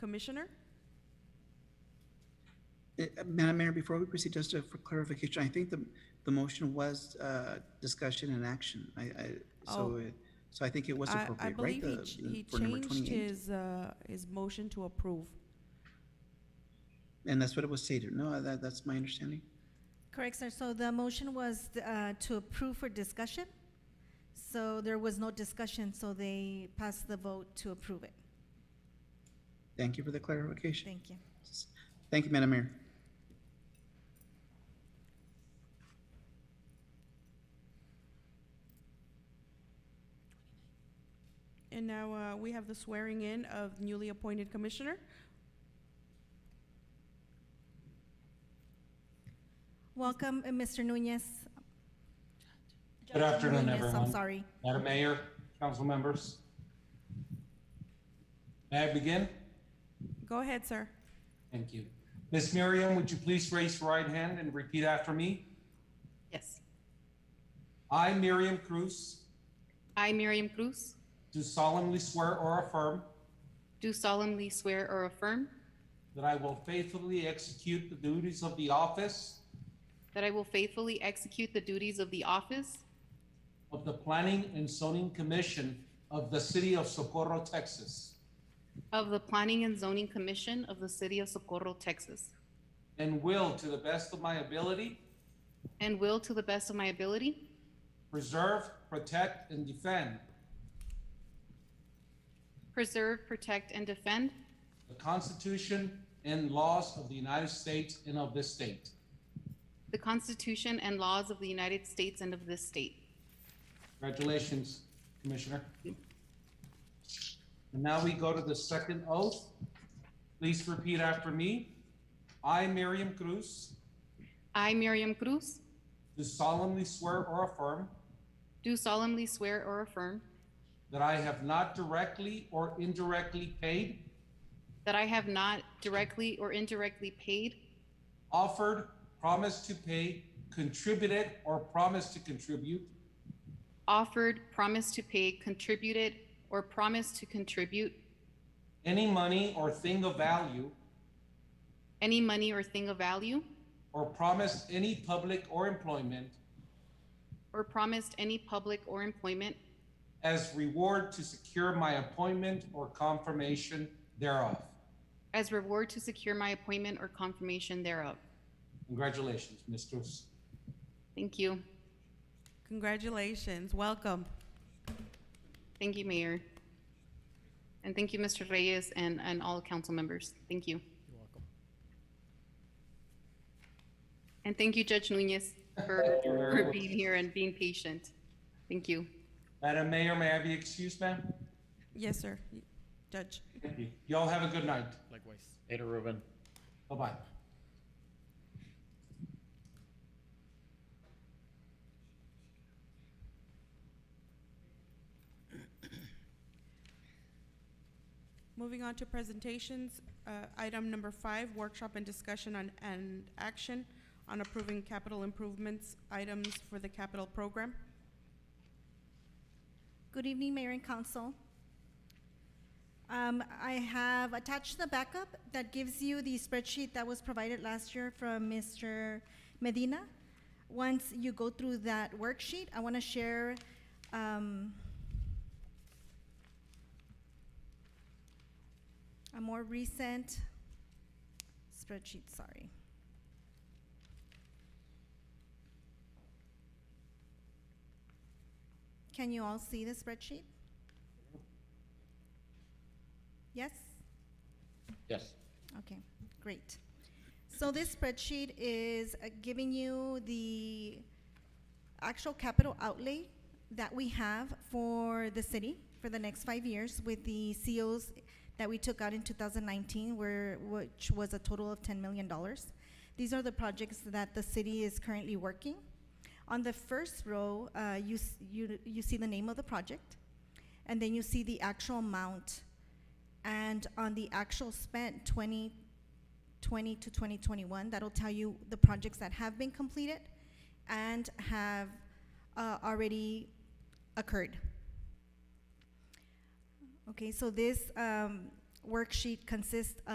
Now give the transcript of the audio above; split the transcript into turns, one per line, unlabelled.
Commissioner?
Uh, Madam Mayor, before we proceed, just uh, for clarification, I think the, the motion was uh, discussion and action. I, I,
Oh.
so, it- so I think it was
I-
appropriate, right?
I believe he
The-
ch-
the-
he
for number
changed
28.
his, uh, his motion to approve.
And that's what it was stated. No, that, that's my understanding.
Correct, sir. So the motion was uh, to approve for discussion. So there was no discussion, so they passed the vote to approve it.
Thank you for the clarification.
Thank you.
Thank you, Madam Mayor.
And now uh, we have the swearing in of newly appointed commissioner.
Welcome, uh, Mr. Nunez.
Good afternoon,
Nunez, I'm
everyone.
sorry.
Madam Mayor, council members. May I begin?
Go ahead, sir.
Thank you. Miss Miriam, would you please raise your right hand and repeat after me?
Yes.
I, Miriam Cruz,
I, Miriam Cruz,
do solemnly swear or affirm
do solemnly swear or affirm
that I will faithfully execute the duties of the office
that I will faithfully execute the duties of the office
of the Planning and Zoning Commission of the City of Socorro, Texas,
of the Planning and Zoning Commission of the City of Socorro, Texas,
and will, to the best of my ability,
and will, to the best of my ability,
preserve, protect, and defend
preserve, protect, and defend
The Constitution and laws of the United States and of this state.
the Constitution and laws of the United States and of this state.
Congratulations, Commissioner. And now we go to the second oath. Please repeat after me. I, Miriam Cruz,
I, Miriam Cruz,
do solemnly swear or affirm
do solemnly swear or affirm
that I have not directly or indirectly paid,
that I have not directly or indirectly paid,
offered, promised to pay, contributed, or promised to contribute
offered, promised to pay, contributed, or promised to contribute
any money or thing of value,
any money or thing of value,
or promised any public or employment
or promised any public or employment
as reward to secure my appointment or confirmation thereof.
as reward to secure my appointment or confirmation thereof.
Congratulations, Ms. Cruz.
Thank you.
Congratulations, welcome.
Thank you, Mayor. And thank you, Mr. Reyes, and, and all council members. Thank you. You're welcome. And thank you, Judge Nunez, for,
you very
for
much.
being here and being patient. Thank you.
Madam Mayor, may I be excused, ma'am?
Yes, sir. Judge.
Thank you. Y'all have a good night.
Likewise. Later, Ruben.
Bye-bye.
Moving on to presentations, uh, item number five, workshop and discussion on, and action on approving capital improvements items for the capital program.
Good evening, Mayor and Council. Um, I have attached the backup that gives you the spreadsheet that was provided last year from Mr. Medina. Once you go through that worksheet, I want to share, um, a more recent spreadsheet, sorry. Can you all see the spreadsheet? Yes?
Yes.
Okay, great. So this spreadsheet is uh, giving you the actual capital outlay that we have for the city for the next five years with the COs that we took out in 2019, where, which was a total of $10 million. These are the projects that the city is currently working. On the first row, uh, you, s- you, you see the name of the project, and then you see the actual amount and on the actual spent 2020 to 2021, that'll tell you the projects that have been completed and have uh, already occurred. Okay, so this um, worksheet consists